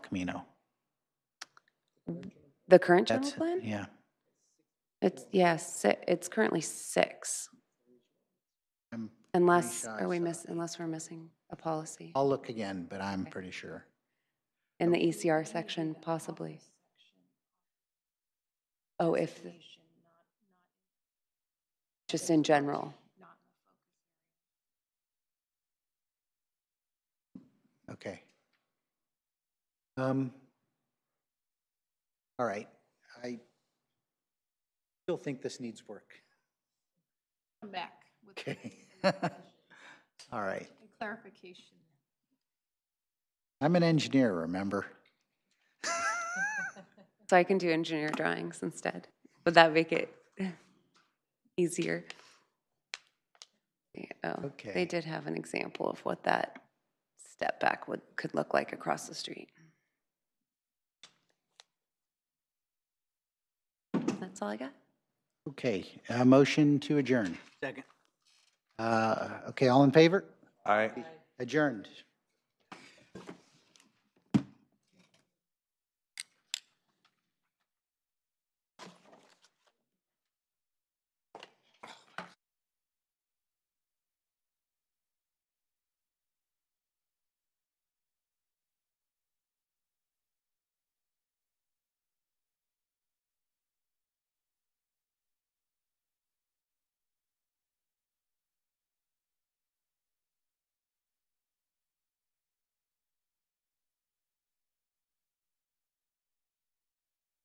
Camino. The current general That's, plan? yeah. It's, yes, it's currently six, I'm- unless, sure I are we saw miss, unless we're missing a policy I'll look again, but I'm pretty sure. in the ECR section, possibly. Oh, if, just in general. Okay. Um, all right, I still think this needs work. Come back with Okay. All right. clarification. I'm an engineer, remember? So I can do engineer drawings instead. Would that make it easier? Yeah, Oh, Okay. they did have an example of what that step back would, could look like across the street. That's all I got. Okay, a motion to adjourn. Second. Uh, okay, all in favor? Aye. Adjourned.